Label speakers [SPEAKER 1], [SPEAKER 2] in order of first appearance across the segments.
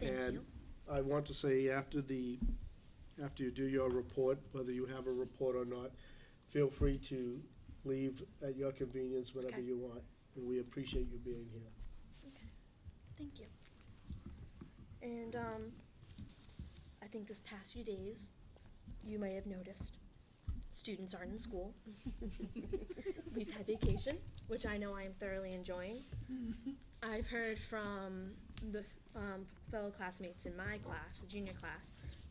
[SPEAKER 1] And I want to say after the, after you do your report, whether you have a report or not, feel free to leave at your convenience whenever
[SPEAKER 2] Okay.
[SPEAKER 1] you want. And we appreciate you being here.
[SPEAKER 2] Thank you. And, um, I think this past few days, you may have noticed, students aren't in school. We've had vacation, which I know I am thoroughly enjoying. I've heard from the, um, fellow classmates in my class, the junior class,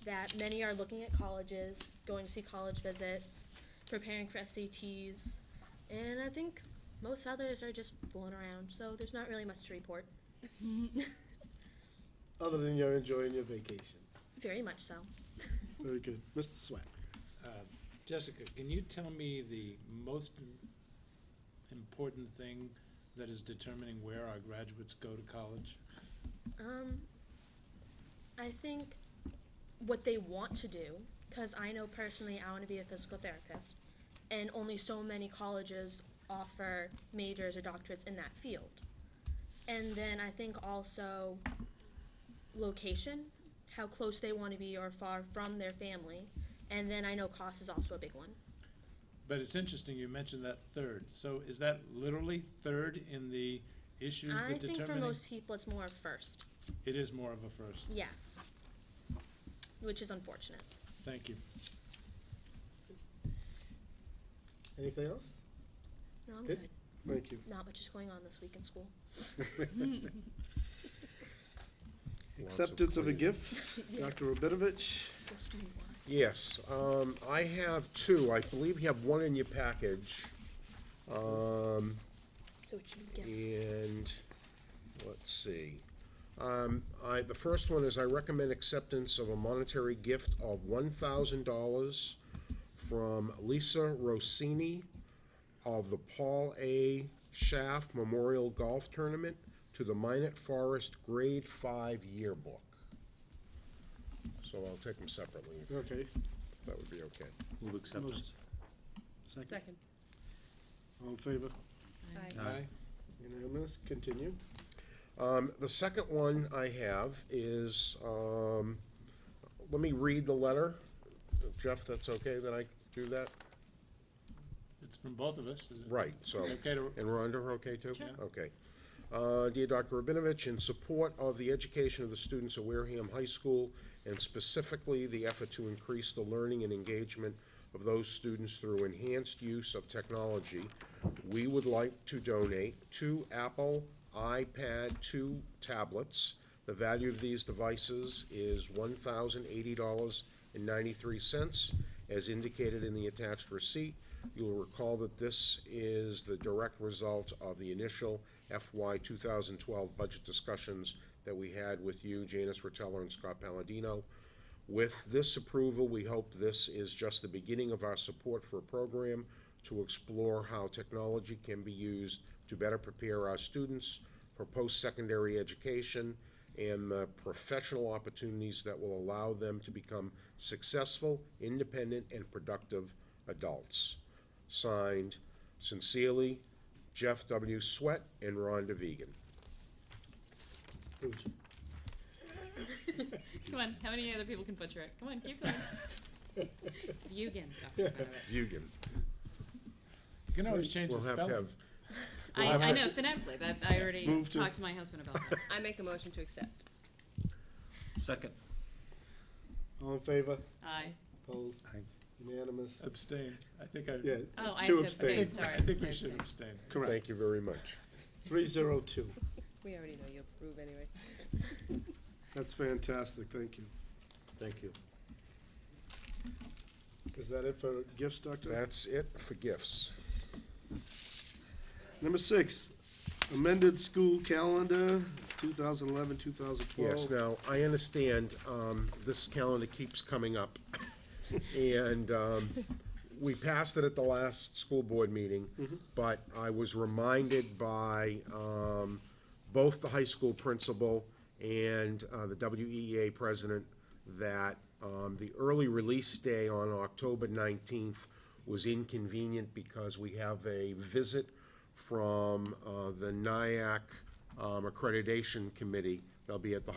[SPEAKER 2] that many are looking at colleges, going to see college visits, preparing for SATs, and I think most others are just fooling around, so there's not really much to report.
[SPEAKER 1] Other than you're enjoying your vacation.
[SPEAKER 2] Very much so.
[SPEAKER 1] Very good. Mr. Swack.
[SPEAKER 3] Uh, Jessica, can you tell me the most im- important thing that is determining where our graduates go to college?
[SPEAKER 2] Um, I think what they want to do, because I know personally I want to be a physical therapist, and only so many colleges offer majors or doctorates in that field. And then I think also location, how close they want to be or far from their family. And then I know cost is also a big one.
[SPEAKER 3] But it's interesting you mentioned that third. So is that literally third in the issues
[SPEAKER 2] I
[SPEAKER 3] that
[SPEAKER 2] think for
[SPEAKER 3] determining?
[SPEAKER 2] most people it's more of first,
[SPEAKER 3] It is more of a first.
[SPEAKER 2] yes, which is unfortunate.
[SPEAKER 3] Thank you.
[SPEAKER 1] Anything else?
[SPEAKER 2] No, I'm
[SPEAKER 1] Good.
[SPEAKER 2] good.
[SPEAKER 1] Thank you.
[SPEAKER 2] Not much is going on this week in school.
[SPEAKER 1] Acceptance of a gift, Dr. Rabinovich.
[SPEAKER 2] Just move on.
[SPEAKER 4] Yes, um, I have two. I believe you have one in your package.
[SPEAKER 1] Uh,
[SPEAKER 4] Um,
[SPEAKER 2] So what you get.
[SPEAKER 4] and, let's see. Um, I, the first one is I recommend acceptance of a monetary gift of one thousand dollars from Lisa Rossini of the Paul A. Schaff Memorial Golf Tournament to the Minot Forest Grade Five Yearbook. So I'll take them separately, if
[SPEAKER 1] Okay.
[SPEAKER 4] that would be okay.
[SPEAKER 5] Move
[SPEAKER 1] acceptance. Second.
[SPEAKER 6] Second.
[SPEAKER 1] All in favor?
[SPEAKER 6] Aye.
[SPEAKER 3] Aye.
[SPEAKER 1] Unanimous. Continue.
[SPEAKER 4] Um, the second one I have is, um, let me read the letter. Jeff, that's okay that I do that?
[SPEAKER 3] It's from both of us, is it?
[SPEAKER 4] Right, so,
[SPEAKER 3] Okay to,
[SPEAKER 4] and oh, Rhonda, we're okay too?
[SPEAKER 3] Sure.
[SPEAKER 4] Okay. Uh, dear Dr. Rabinovich, in support of the education of the students of Wareham High School and specifically the effort to increase the learning and engagement of those students through enhanced use of technology, we would like to donate two Apple iPad 2 tablets. The value of these devices is $1,080.93, as indicated in the attached receipt. You'll recall that this is the direct result of the initial FY 2012 budget discussions that we had with you, Janice Roteller, and Scott Palladino. With this approval, we hope this is just the beginning of our support for a program to explore how technology can be used to better prepare our students for post-secondary education and the professional opportunities that will allow them to become successful, independent, and productive adults. Signed, sincerely, Jeff W. Sweat and Rhonda Vegan.
[SPEAKER 1] Who's-
[SPEAKER 6] Come on, how many other people can butcher it? Come on, keep going. Vegan. talking about it.
[SPEAKER 4] Vegan.
[SPEAKER 3] you can always change the
[SPEAKER 4] We'll have to have
[SPEAKER 3] spelling.
[SPEAKER 6] I,
[SPEAKER 4] We'll have
[SPEAKER 6] I
[SPEAKER 4] to-
[SPEAKER 6] know, phonetically, that, I already
[SPEAKER 1] Move to-
[SPEAKER 6] talked to my husband about that.
[SPEAKER 7] I make a motion to accept.
[SPEAKER 5] Second.
[SPEAKER 1] All in favor?
[SPEAKER 6] Aye.
[SPEAKER 1] Opposed?
[SPEAKER 4] Aye.
[SPEAKER 1] Unanimous.
[SPEAKER 3] Abstain. I think I.
[SPEAKER 1] Yeah.
[SPEAKER 6] Oh, I
[SPEAKER 1] two
[SPEAKER 6] have
[SPEAKER 3] I
[SPEAKER 6] to abstain,
[SPEAKER 3] think-
[SPEAKER 6] sorry.
[SPEAKER 3] I think
[SPEAKER 6] I
[SPEAKER 3] we should
[SPEAKER 6] abstain.
[SPEAKER 3] abstain.
[SPEAKER 1] Correct.
[SPEAKER 4] Thank you very much.
[SPEAKER 1] Three zero two.
[SPEAKER 7] We already know you approve anyway.
[SPEAKER 1] That's fantastic. Thank you.
[SPEAKER 5] Thank you.
[SPEAKER 1] Is that it for gifts, Doctor?
[SPEAKER 4] That's it for gifts.
[SPEAKER 1] Number six, amended school calendar, 2011, 2012.
[SPEAKER 4] Yes, now, I understand, um, this calendar keeps coming up. And, um, we passed it at the last school board meeting,
[SPEAKER 1] Mhm.
[SPEAKER 4] but I was reminded by, um, both the high school principal and, uh, the WEA president that, um, the early release day on October nineteenth was inconvenient because we have a visit from, uh, the NIAC, um, accreditation committee. They'll be at the